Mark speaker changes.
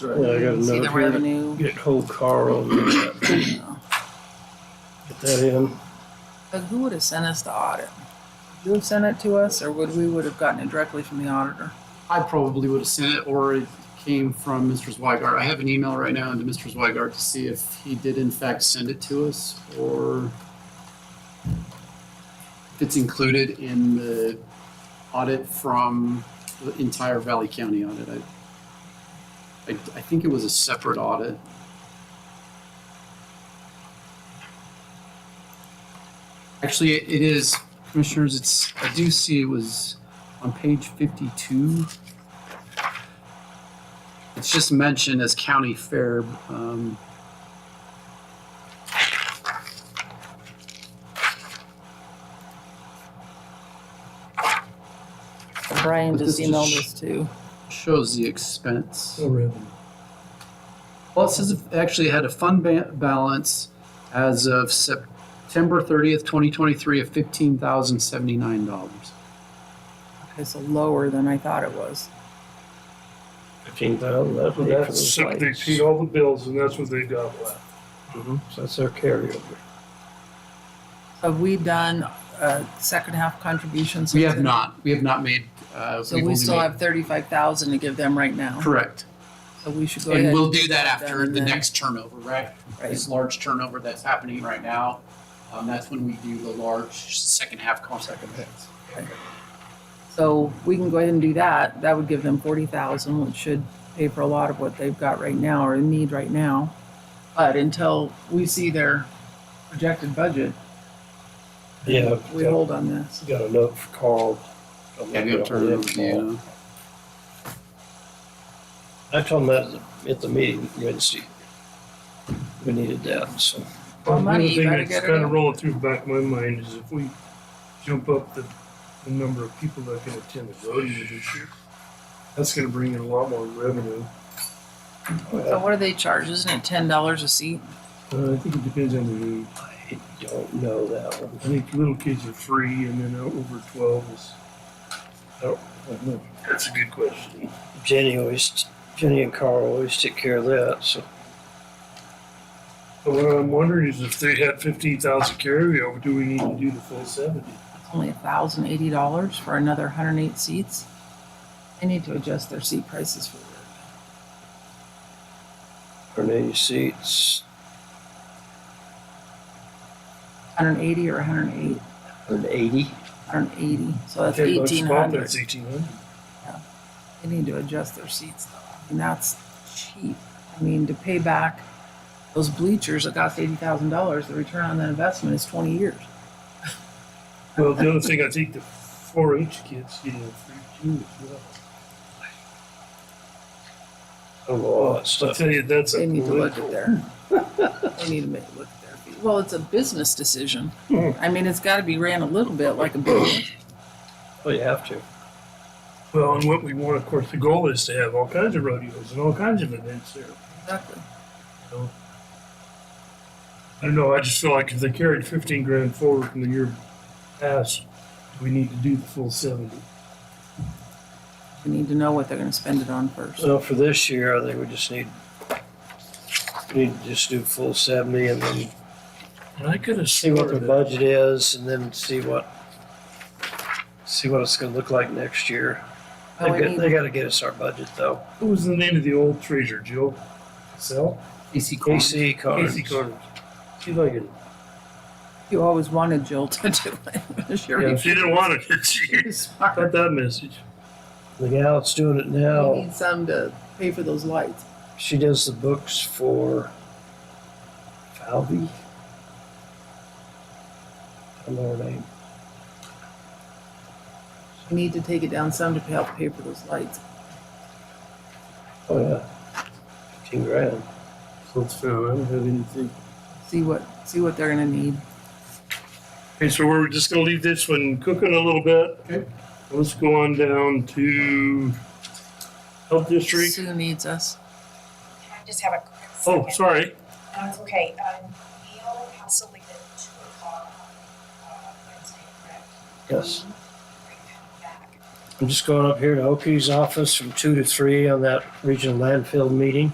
Speaker 1: Yeah,
Speaker 2: Yeah,
Speaker 1: I
Speaker 2: I got
Speaker 1: See
Speaker 2: another
Speaker 1: the
Speaker 2: here.
Speaker 1: revenue.
Speaker 2: Get whole Carl and get that- get that in.
Speaker 1: But who would have sent us the audit? Would you have sent it to us, or would we would have gotten it directly from the auditor?
Speaker 3: I probably would have sent it, or it came from Mr. Zwigart. I have an email right now into Mr. Zwigart to see if he did in fact send it to us, or if it's included in the audit from the entire Valley County audit. I, I, I think it was a separate audit. Actually, it is, commissioners, it's, I do see it was on page fifty-two. It's just mentioned as county fair, um.
Speaker 1: Brian
Speaker 3: But
Speaker 1: just
Speaker 3: this just
Speaker 1: emailed
Speaker 3: sh-
Speaker 1: us too.
Speaker 3: shows the expense.
Speaker 2: No revenue.
Speaker 3: Well, it says it actually had a fund ba- balance as of September thirtieth, twenty twenty-three of fifteen thousand seventy-nine dollars.
Speaker 1: Okay, so lower than I thought it was.
Speaker 2: Fifteen thousand, that's what
Speaker 4: That's
Speaker 2: that's.
Speaker 4: so they paid all the bills and that's what they got left.
Speaker 2: Mm-hmm. So that's their carryover.
Speaker 1: Have we done a second half contribution?
Speaker 3: We have
Speaker 1: since-
Speaker 3: not, we have not made, uh.
Speaker 1: So
Speaker 3: we've
Speaker 1: we
Speaker 3: only
Speaker 1: still
Speaker 3: made-
Speaker 1: have thirty-five thousand to give them right now.
Speaker 3: Correct.
Speaker 1: So we should go ahead.
Speaker 3: And we'll
Speaker 1: and
Speaker 3: do
Speaker 1: get
Speaker 3: that after
Speaker 1: done
Speaker 3: the
Speaker 1: then.
Speaker 3: next turnover, right?
Speaker 1: Right.
Speaker 3: This large turnover that's happening right now, um, that's when we do the large second half contract events.
Speaker 1: So we can go ahead and do that. That would give them forty thousand, which should pay for a lot of what they've got right now or in need right now. But until we see their projected budget,
Speaker 2: Yeah,
Speaker 1: we
Speaker 2: got,
Speaker 1: hold on this.
Speaker 2: got a note for Carl. I'm
Speaker 3: Yeah,
Speaker 2: not
Speaker 3: we have
Speaker 2: gonna hold
Speaker 3: turnover,
Speaker 2: it tomorrow.
Speaker 3: yeah.
Speaker 2: I told him that at the- at the meeting Wednesday. We needed that, so.
Speaker 1: Well,
Speaker 4: One
Speaker 1: money, you
Speaker 4: thing
Speaker 1: gotta
Speaker 4: that's
Speaker 1: get it
Speaker 4: Kind
Speaker 1: in.
Speaker 4: of rolling through the back of my mind is if we jump up the, the number of people that can attend the rodeo this year, that's gonna bring in a lot more revenue.
Speaker 1: So what do they charge? Isn't it ten dollars a seat?
Speaker 4: Uh, I think it depends on the age.
Speaker 2: I don't know that one.
Speaker 4: I think little kids are free and then out over twelve is. I don't- I don't know. That's a good question.
Speaker 2: Jenny always, Jenny and Carl always take care of that, so.
Speaker 4: But what I'm wondering is if they had fifteen thousand carryover, do we need to do the full seventy?
Speaker 1: It's only thousand eighty dollars for another hundred and eight seats. They need to adjust their seat prices for that.
Speaker 2: Hundred eighty seats,
Speaker 1: Hundred and eighty or a hundred and eight,
Speaker 2: hundred eighty.
Speaker 1: hundred and eighty, so that's
Speaker 4: Ten bucks a
Speaker 1: eighteen
Speaker 4: pop,
Speaker 1: hundred.
Speaker 4: That's eighteen hundred.
Speaker 1: They need to adjust their seats though, and that's cheap. I mean, to pay back those bleachers that cost eighty thousand dollars, the return on that investment is twenty years.
Speaker 4: Well, the other thing, I think the four H kids get a free too as well.
Speaker 2: A lot of
Speaker 4: I'll
Speaker 2: stuff.
Speaker 4: tell you, that's
Speaker 1: They
Speaker 4: a
Speaker 1: need to look
Speaker 4: political.
Speaker 1: at their, they need to make, look at their fees. Well, it's a business decision. I mean, it's gotta be ran a little bit like a business.
Speaker 2: Well, Oh, you have to.
Speaker 4: Well, and what we want, of course, the goal is to have all kinds of rodeos and all kinds of events there.
Speaker 1: Exactly.
Speaker 4: So, I don't know, I just feel like if they carried fifteen grand forward from the year past, we need to do the full seventy.
Speaker 1: We need to know what they're gonna spend it on first.
Speaker 2: So for this year, I think we just need, we need to just do full seventy and then
Speaker 4: And I could have
Speaker 2: see what
Speaker 4: sworn
Speaker 2: their
Speaker 4: that,
Speaker 2: budget is and then see what, see what it's gonna look like next year. They
Speaker 1: But we
Speaker 2: got,
Speaker 1: need-
Speaker 2: they gotta get us our budget though.
Speaker 4: who was the name of the old treasurer, Jill? Sell?
Speaker 3: AC
Speaker 2: KC
Speaker 4: Casey
Speaker 2: Carnes.
Speaker 4: Carter. She's like, a-
Speaker 1: You always wanted Jill to do it. Sure.
Speaker 4: yeah, she didn't want it, did she? Got that message.
Speaker 2: The gal that's doing it
Speaker 1: We
Speaker 2: now,
Speaker 1: need some to pay for those lights.
Speaker 2: she does the books for Falvey. I don't know her name.
Speaker 1: We need to take it down some to help pay for those lights.
Speaker 2: Oh, yeah. Fifteen grand.
Speaker 4: Let's, I don't have anything.
Speaker 1: See what, see what they're gonna need.
Speaker 4: Okay, so we're just gonna leave this one cooking a little bit.
Speaker 3: Okay.
Speaker 4: Let's go on down to Health District.
Speaker 1: Sue needs us.
Speaker 5: Can I just have a quick
Speaker 4: Oh,
Speaker 5: second?
Speaker 4: sorry.
Speaker 5: Um, it's okay, um, Neil has to leave at two o'clock, uh, Wednesday, correct?
Speaker 2: Yes.
Speaker 5: Are you coming back?
Speaker 2: I'm just going up here to Oki's office from two to three on that regional landfill meeting.